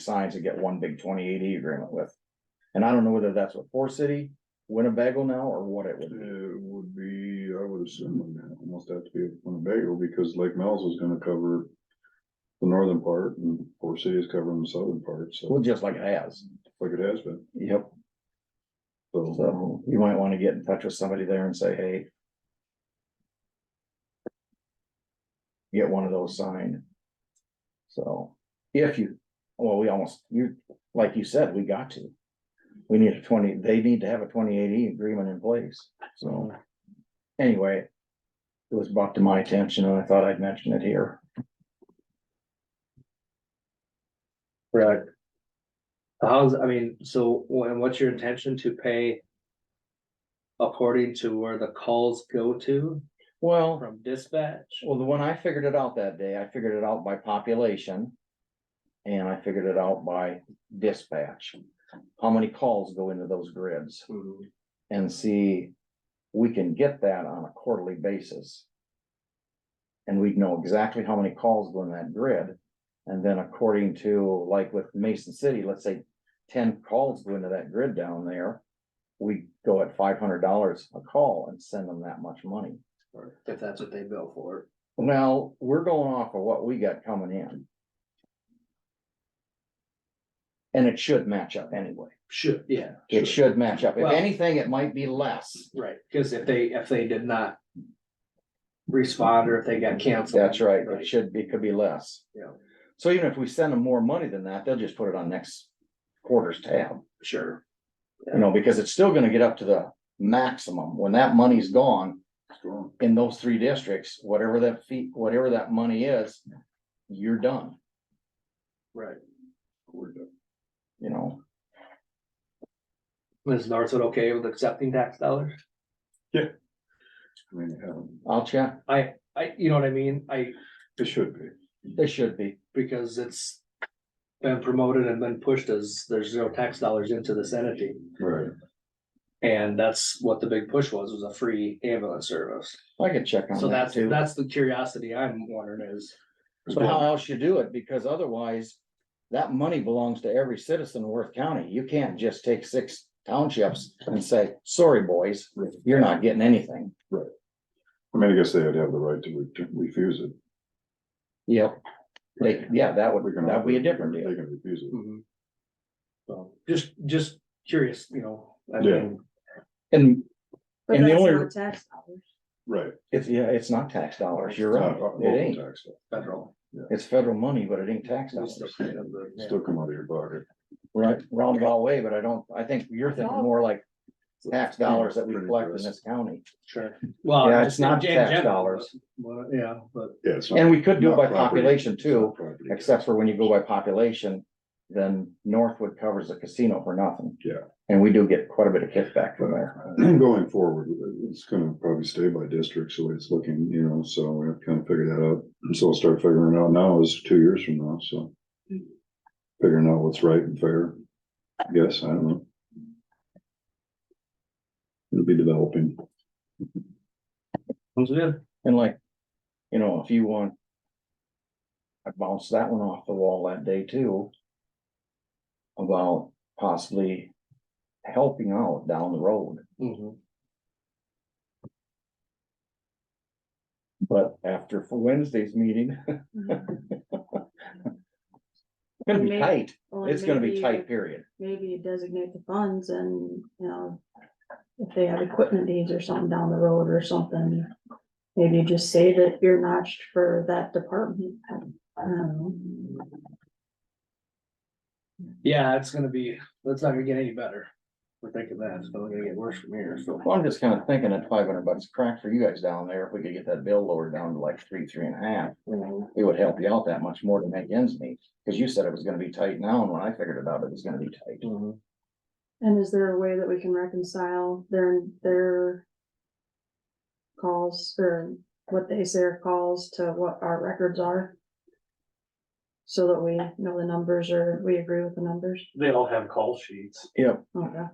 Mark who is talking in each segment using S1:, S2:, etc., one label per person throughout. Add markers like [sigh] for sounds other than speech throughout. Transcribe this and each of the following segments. S1: signs and get one big twenty eighty agreement with. And I don't know whether that's with Four City, Winnebago now, or what it would be.
S2: It would be, I would assume, it almost have to be Winnebago, because Lake Mel's is gonna cover the northern part, and Four Cities covering the southern part, so,
S1: Well, just like it has.
S2: like it has been,
S1: Yep.
S2: so.
S1: So you might wanna get in touch with somebody there and say, hey. Get one of those signed. So, if you, well, we almost, you, like you said, we got to. We need a twenty, they need to have a twenty eighty agreement in place, so. Anyway. It was brought to my attention and I thought I'd mention it here.
S3: Right. How's, I mean, so when, what's your intention to pay? According to where the calls go to
S1: Well.
S3: from dispatch?
S1: Well, the one I figured it out that day, I figured it out by population. And I figured it out by dispatch, how many calls go into those grids
S3: Mm-hmm.
S1: and see. We can get that on a quarterly basis. And we'd know exactly how many calls go in that grid. And then according to, like with Mason City, let's say ten calls go into that grid down there. We go at five hundred dollars a call and send them that much money.
S3: Or If that's what they bill for.
S1: Well, we're going off of what we got coming in. And it should match up anyway.
S3: Should, yeah,
S1: It should match up. If
S3: Well-
S1: anything, it might be less.
S3: right, cause if they, if they did not. Respond or if they got canceled.
S1: That's right. It should be, could be less.
S3: Yeah.
S1: So even if we send them more money than that, they'll just put it on next quarter's tab,
S3: Sure,
S1: you know, because it's still gonna get up to the maximum. When that money's gone
S2: it's gone.
S1: in those three districts, whatever that fee, whatever that money is, you're done,
S3: right.
S2: We're done.
S1: you know?
S3: Is Northwood okay with accepting tax dollars?
S2: I mean, it happened.
S1: I'll check.
S3: I, you know what I mean? I,
S2: It should be,
S1: They should be.
S3: because it's. Been promoted and been pushed as there's no tax dollars into this entity.
S2: right,
S3: And that's what the big push was, was a free ambulance service.
S1: I could check on
S3: So
S1: that
S3: that's,
S1: too.
S3: that's the curiosity I'm wondering is,
S1: So how else you do it, because otherwise, that money belongs to every citizen of Worth County, you can't just take six townships and say, sorry, boys, you're not getting anything.
S2: I mean, I guess they'd have the right to re- to refuse it.
S1: Yep. They, yeah, that
S2: We
S1: would,
S2: can-
S1: that'd be a different
S2: They
S1: deal, Hmm.
S2: can refuse it,
S1: Mm-hmm.
S3: mhm. So, just, just curious, you know, I
S2: Yeah.
S3: mean,
S1: and
S4: But
S1: And the
S4: that's
S1: only-
S4: not tax dollars.
S2: right.
S1: it's, yeah, it's not tax dollars, you're
S2: Not-
S1: right,
S2: not local
S1: it ain't,
S2: tax,
S3: federal.
S1: it's federal money, but it ain't tax
S3: We
S1: dollars.
S3: still kind of the- yeah.
S2: Still come out of your pocket.
S1: Right, roundabout way, but I don't, I think you're thinking
S4: No.
S1: more like tax dollars that we
S2: Pretty
S1: collect in
S2: gross.
S1: this county,
S3: Sure. Well,
S1: Yeah, it's
S3: I'm Uh, just-
S1: not
S3: in
S1: tax
S3: general,
S1: dollars.
S3: but- but, Yeah, but
S2: Yeah, it's not-
S1: and we could do it
S2: not
S1: by
S2: property.
S1: population too.
S2: Property.
S1: Except for when you go by population, then Northwood covers the casino for nothing.
S2: Yeah.
S1: And we do get quite a bit of kickback from there.
S2: [clears throat] Going forward, it's gonna probably stay by district, so it's looking, you know, so we have to kind of figure that out. And so we'll start figuring it out now is two years from now, so. Figuring out what's right and fair, I guess, I don't know. It'll be developing.
S3: sounds good.
S1: And like, you know, if you want. I bounced that one off the wall that day too. About possibly helping out down the road,
S3: Mhm.
S1: but after for Wednesday's meeting, [laughs] it's [laughs] gonna be
S4: May-
S1: tight.
S4: Or
S1: It's gonna be
S4: maybe-
S1: tight, period.
S4: Maybe you designate the funds and, you know, if they have equipment needs or something down the road or something. Maybe you just save it ear notched for that department. I don't know.
S3: Yeah, it's gonna be, that's not gonna get any better. We're thinking that, it's only gonna get worse from here, so.
S1: Well, I'm just kind of thinking at five hundred bucks a crack for you guys down there, if we could get that bill lowered down to like three, three and a half, it would help you out that much more to make ends meet. Cause you said it was gonna be tight now, and when I figured it out, it was gonna be tight.
S3: Mhm.
S4: And is there a way that we can reconcile their, their calls or what they say are calls to what our records are? So that we know the numbers or we agree with the numbers?
S5: They all have call sheets.
S1: Yep.
S4: Okay.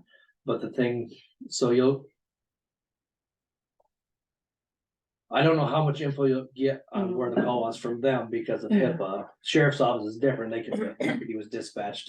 S3: But the thing, so you'll. I don't know how much info you'll get on where the call was from them because of HIPAA. Sheriff's office is different. They can, he was dispatched